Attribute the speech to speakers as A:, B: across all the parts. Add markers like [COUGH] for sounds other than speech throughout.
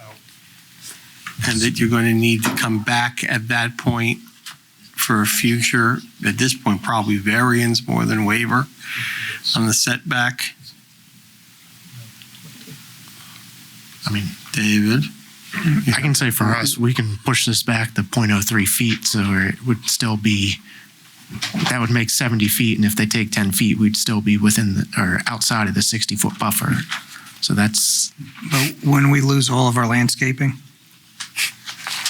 A: Oh.
B: and that you're going to need to come back at that point for a future, at this point, probably variance more than waiver on the setback.
C: I mean,
B: David?
C: I can say for us, we can push this back to 0.03 feet, so it would still be, that would make 70 feet, and if they take 10 feet, we'd still be within, the- or outside of the 60-foot buffer. So that's,
D: But when we lose all of our landscaping,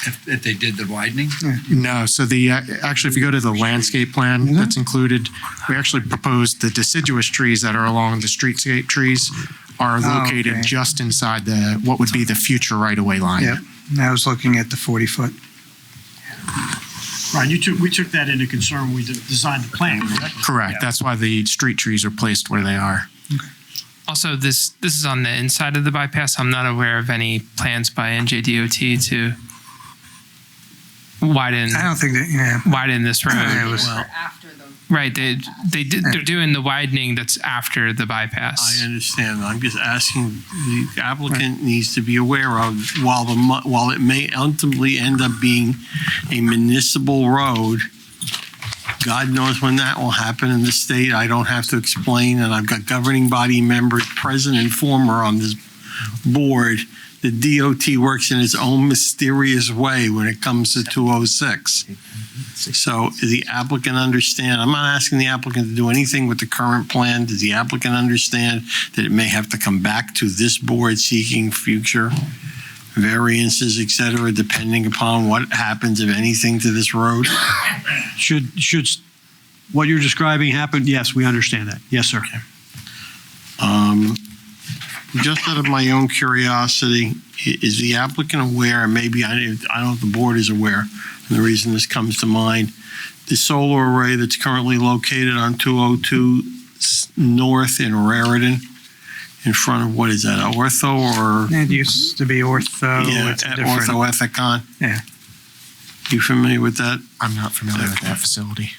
E: If, if they did the widening?
C: no, so the, uh, actually, if you go to the landscape plan that's included, we actually proposed the deciduous trees that are along the streetscape trees are located
D: okay.
C: just inside the, what would be the future right-of-way line.
D: yep, And I was looking at the 40-foot.
A: Right, you took, we took that into concern when we de- designed the plan, correct?
C: Correct, that's why the street trees are placed where they are.
F: Also, this this is on the inside of the bypass. I'm not aware of any plans by NJDOT to widen
D: I don't think that, yeah,
F: widen this
D: it
F: road.
D: was,
G: after the
F: Right, they they did, they're doing the widening that's after the bypass.
B: I understand. I'm just asking, the applicant needs to be aware of, while the, mu- while it may ultimately end up being a municipal road, God knows when that will happen in the state. I don't have to explain, and I've got governing body members, present and former on this board. The DOT works in its own mysterious way when it comes to 206. So does the applicant understand, I'm not asking the applicant to do anything with the current plan. Does the applicant understand that it may have to come back to this board seeking future variances, et cetera, depending upon what happens, if anything, to this road?
A: Should, should, s- what you're describing happened, yes, we understand that. Yes, sir.
B: Um, Just out of my own curiosity, i- is the applicant aware, and maybe, I I don't know if the board is aware, and the reason this comes to mind, the solar array that's currently located on 202 s- North in Raritan, in front of, what is that, Ortho or?
D: it used to be ortho,
B: Yeah,
D: it's
B: at
D: different.
B: Ortho Ethicon?
D: Yeah.
B: You familiar with that?
C: I'm not familiar with that facility.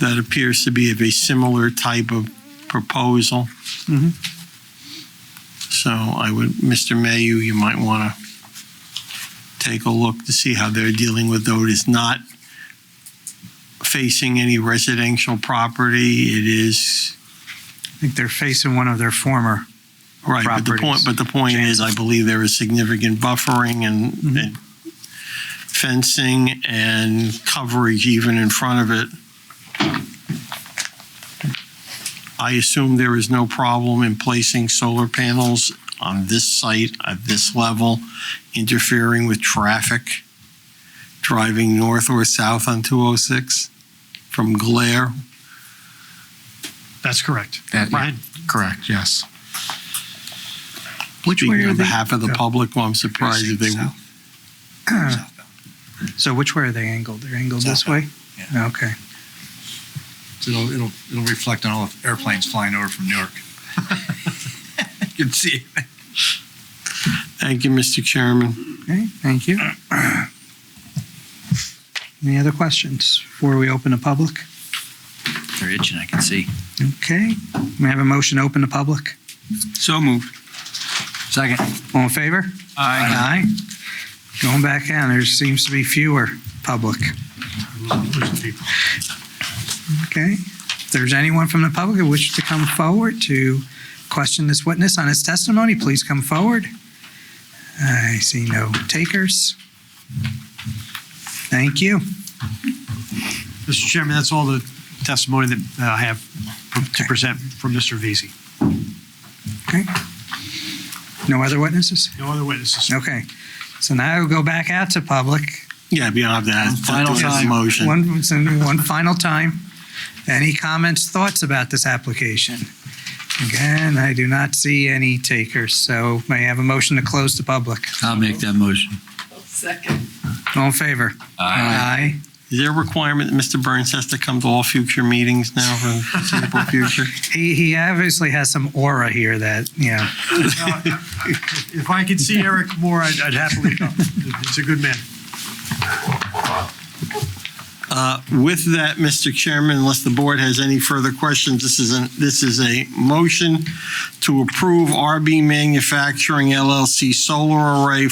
B: That appears to be of a similar type of proposal.
D: Mhm.
B: So I would, Mr. Mayu, you might want to take a look to see how they're dealing with though it is not facing any residential property. It is,
D: I think they're facing one of their former,
B: right, but the point,
D: Properties.
B: but the point is, I believe there is significant buffering and
D: Mhm.
B: and fencing and coverage even in front of it. I assume there is no problem in placing solar panels on this site at this level, interfering with traffic driving north or south on 206 from glare.
A: That's correct.
C: That-
A: Brian?
C: Correct, yes.
D: Which way
B: Speaking
D: are
B: on
D: they-
B: behalf of the
D: Yeah.
B: public, well, I'm surprised if they,
D: so which way are they angled? They're angled this way? Okay.
E: So it'll, it'll, it'll reflect on all the airplanes flying over from Newark. You can see it.
B: thank you, Mr. Chairman.
D: Okay, thank you. Any other questions before we open the public?
E: They're itching, I can see.
D: Okay, may I have a motion to open the public?
E: So moved. Second.
D: All in favor? Aye. Going back in, there seems to be fewer public. Okay, if there's anyone from the public who wishes to come forward to question this witness on his testimony, please come forward. I see no takers. Thank you.
A: Mr. Chairman, that's all the testimony that uh, I have to
D: Okay.
A: present from Mr. Veazey.
D: Okay. No other witnesses?
A: No other witnesses.
D: Okay, so now we'll go back out to public.
B: Yeah, we don't have to ask,
E: Final
B: do it as a
E: time.
B: motion.
D: One, one final time. Any comments, thoughts about this application? Again, I do not see any takers, so may I have a motion to close the public?
E: I'll make that motion.
G: second.
D: All in favor? Aye.
B: Is there a requirement that Mr. Burns has to come to all future meetings now for the [LAUGHS] foreseeable future?
D: He, he obviously has some aura here that, you know,
A: If I could see Eric more, I'd I'd happily come. He's a good man.
B: Uh, With that, Mr. Chairman, unless the board has any further questions, this is, an- this is a motion to approve RB Manufacturing LLC Solar Array